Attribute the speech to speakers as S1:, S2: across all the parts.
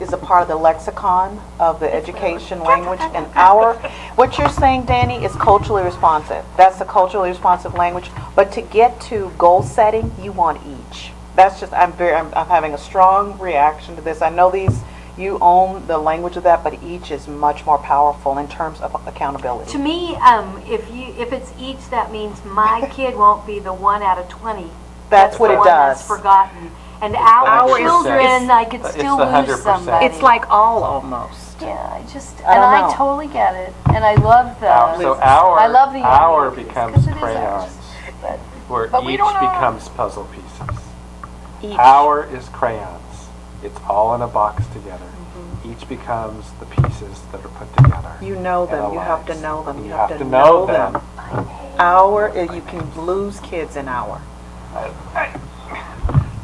S1: is a part of the lexicon of the education language and our, what you're saying, Danny, is culturally responsive. That's the culturally responsive language, but to get to goal setting, you want each. That's just, I'm very, I'm, I'm having a strong reaction to this. I know these, you own the language of that, but each is much more powerful in terms of
S2: To
S1: accountability.
S2: me, um, if you, if it's each, that means my kid won't be the one out of twenty.
S1: That's what
S2: the
S1: it
S2: one that's
S1: does.
S2: Forgotten. And our
S3: 100%.
S2: children, I could
S3: It's- it's
S2: still
S3: the
S2: lose
S3: 100%.
S2: somebody.
S4: It's like all almost.
S2: Yeah, I just,
S1: I
S2: and
S1: don't
S2: I
S1: know.
S2: totally get it, and I love
S3: Our-
S2: the.
S3: Um, So our,
S2: I love the young
S3: our
S2: kids,
S3: becomes
S2: 'cause it is ours.
S3: crayons,
S2: But
S3: where
S2: but we
S3: each
S2: don't know.
S3: becomes puzzle pieces.
S1: Each.
S3: Our is crayons. It's all in a box together. Each becomes the pieces that are put together.
S1: You know
S3: and
S1: them, you have to
S3: aligns.
S1: know them, you
S3: have to know them.
S1: Our, you can lose kids in our.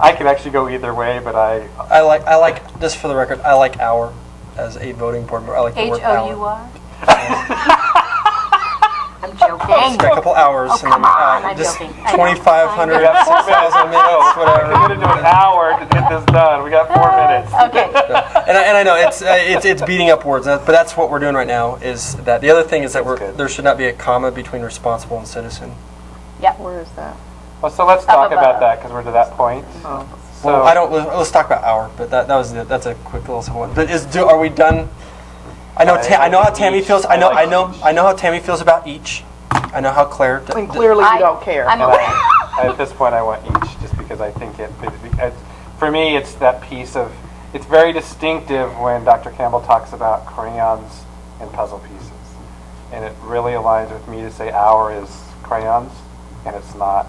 S3: I could actually go either way, but I,
S5: I like, I like, just for the record, I like our as a voting board member. I like the
S2: H
S5: word
S2: O
S5: hour.
S2: U R? I'm joking.
S5: Spend a couple hours and then,
S2: Oh, come on,
S5: uh,
S2: I'm
S5: just
S2: joking. I know.
S5: 2,500,
S3: we got six minutes. oh,
S5: 6,000 minutes,
S3: We're
S5: whatever.
S3: gonna do an hour to get this done. We got four minutes.
S2: Okay,
S5: and, I, and I know it's, uh, it's it's beating up words, uh, but that's what we're doing right now. Is that the other thing is that we're,
S3: good.
S5: there should not be a comma between responsible and citizen.
S1: Where is that?
S3: Well, so let's talk about that because we're to that point. So
S5: Well, I don't. Let's let's talk about our, but that, that was the, that's a quick little simple one. But is do are we done? I know.
S3: I-
S5: Ta- I know how
S3: I
S5: Tammy
S3: each-
S5: feels. I
S3: I
S5: know.
S3: like
S5: I know.
S3: each.
S5: I know how Tammy feels about each. I know how Claire. d-
S1: And
S5: d-
S1: clearly
S2: I-
S1: you don't care.
S2: I'm
S3: And
S2: aware.
S3: I, at this point, I want each, just because I think it, it- it- For me, it's that piece of. It's very distinctive when Dr. Campbell talks about crayons and puzzle pieces, and it really aligns with me to say our is crayons, and it's not.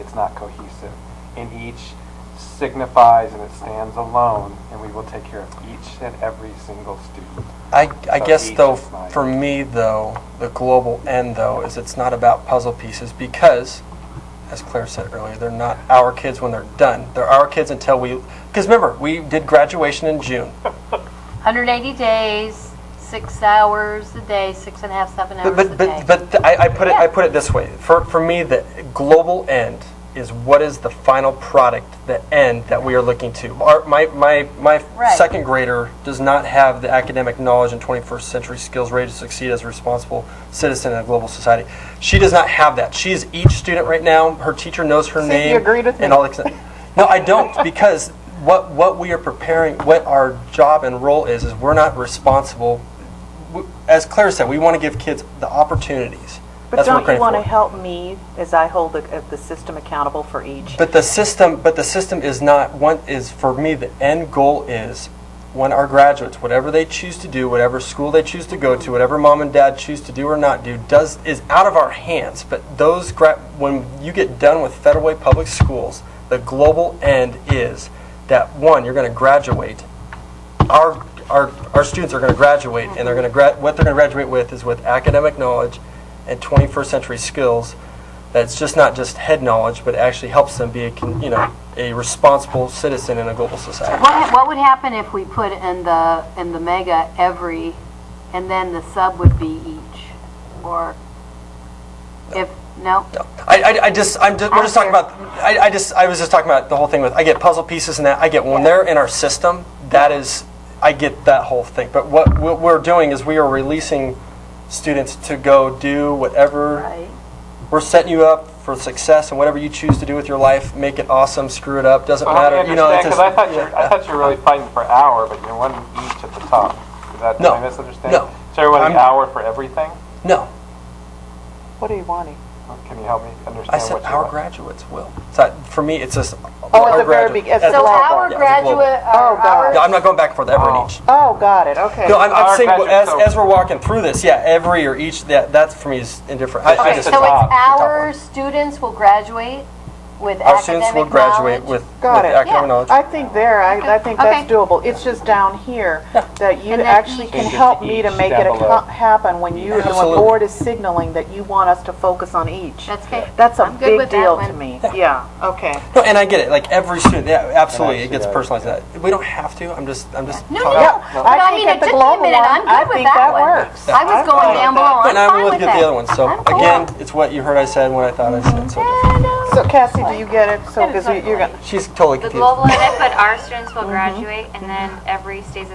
S3: It's not cohesive, and each signifies and it stands alone, and we will take care of each and every single student.
S5: I, I
S3: So
S5: guess
S3: each
S5: though,
S3: is mine.
S5: for me though, the global end though is it's not about puzzle pieces because, as Claire said earlier, they're not our kids when they're done. They're our kids until we. Because remember, we did graduation in June.
S2: 180 days, six hours a day, six and a half, seven
S5: But
S2: hours a
S5: but
S2: day.
S5: but, but th- I, I put it I
S2: Yeah.
S5: put it this way. For for me, the global end is what is the final product, the end that we are looking to. Our, my my my
S2: Right.
S5: second grader does not have the academic knowledge and 21st century skills ready to succeed as a responsible citizen in a global society. She does not have that. She is each student right now. Her teacher knows her
S1: you
S5: name.
S1: agreed with
S5: and
S1: me.
S5: all that. No, I don't because. What, what we are preparing, what our job and role is, is we're not responsible w- as Claire said, we want to give kids the opportunities.
S1: But
S5: That's what
S1: don't
S5: we're
S1: you want to
S5: creating for.
S1: help me as I hold the, uh, the system accountable for each?
S5: But the system, but the system is not one. Is for me the end goal is when our graduates, whatever they choose to do, whatever school they choose to go to, whatever mom and dad choose to do or not do, does is out of our hands. But those gra- when you get done with Federal Way Public Schools, the global end is that one, you're going to graduate our our our students are going to graduate, and they're going to gra- what they're going to graduate with is with academic knowledge and 21st century skills. That's just not just head knowledge, but actually helps them be a con- you know a responsible citizen in a global society.
S2: What, what would happen if we put in the, in the mega every, and then the sub would be each? Or if, no?
S5: I, I, I just I'm just, we're just talking about I, I just I was just talking about the whole thing with I get puzzle pieces and that I get when they're in our system that is I get that whole thing. But what, what we're doing is we are releasing students to go do whatever.
S2: Right.
S5: we're setting you up for success and whatever you choose to do with your life, make it awesome, screw it up, doesn't
S3: Well, Oh, I
S5: matter. You know, it's
S3: understand, 'cause I thought
S5: just,
S3: you, I thought you were really fighting for hour, but you're one each at the top. Is that, did
S5: No.
S3: I misunderstand?
S5: No.
S3: So you're wanting
S5: I'm-
S3: hour for everything?
S5: no.
S1: What are you wanting?
S3: Can you help me
S5: I
S3: understand
S5: said
S3: what you
S5: our
S3: want?
S5: graduates will. So for me, it's just
S1: Oh, at
S5: our
S1: the very
S5: graduate-
S1: beg- at
S5: that's
S1: the
S2: So
S5: a
S1: level.
S5: global,
S2: our
S5: yeah, it's a global.
S2: graduate,
S1: Oh,
S2: our,
S1: God.
S5: No,
S2: our-
S5: I'm not going back and forth. Ever
S3: Oh.
S5: and each.
S1: Oh, got it, okay.
S5: No, I'm,
S3: Our
S5: I'm saying well, as,
S3: graduates,
S5: as
S3: so-
S5: we're walking through this, yeah, every or each. That that for me is indifferent. I, I
S2: okay,
S5: just
S2: so
S3: the
S2: it's
S3: top, the
S5: top
S2: our
S5: one.
S2: students will graduate with
S5: our students will
S2: academic
S5: graduate
S2: knowledge?
S5: with, with
S1: Got it.
S5: academic
S2: Yeah.
S5: knowledge.
S1: I think there, I, I think that's
S2: Okay.
S1: doable. It's just down here that you
S2: And then
S1: actually
S2: each-
S1: can
S3: Change it
S1: help
S3: to
S1: me to
S3: each,
S1: make it
S3: down below.
S1: acco- happen when you, when the
S5: Absolutely.
S1: board is signaling that you want us to focus on each.
S2: That's okay.
S1: That's a
S2: I'm good
S1: big
S2: with that
S1: deal to
S2: one.
S1: me. Yeah, okay.
S5: No, and I get it. Like every student, yeah, absolutely, it
S3: actually,
S5: gets
S3: I-
S5: personalized. That we don't have to. I'm just, I'm just.
S2: No,
S5: talking
S2: no,
S5: about-
S2: no.
S1: Yeah,
S2: But
S1: I
S2: I mean,
S1: think that
S2: it
S1: the
S2: took me a
S1: global
S2: minute.
S1: one,
S2: I'm
S1: I
S2: good with
S1: think
S2: that
S1: that
S2: one.
S1: works.
S2: I was
S1: I'm
S2: going
S1: fine with
S2: down
S1: that.
S2: below. I'm
S5: And I'm
S2: fine
S5: with
S2: with
S5: the other
S2: that.
S5: one. So
S2: I'm cool.
S5: again, it's what you heard I said and what I thought I said. So different.
S1: So Cassie, do you get it? So, because you're gonna.
S5: she's totally
S6: The
S5: confused.
S6: global end, but our students will graduate, and then every stays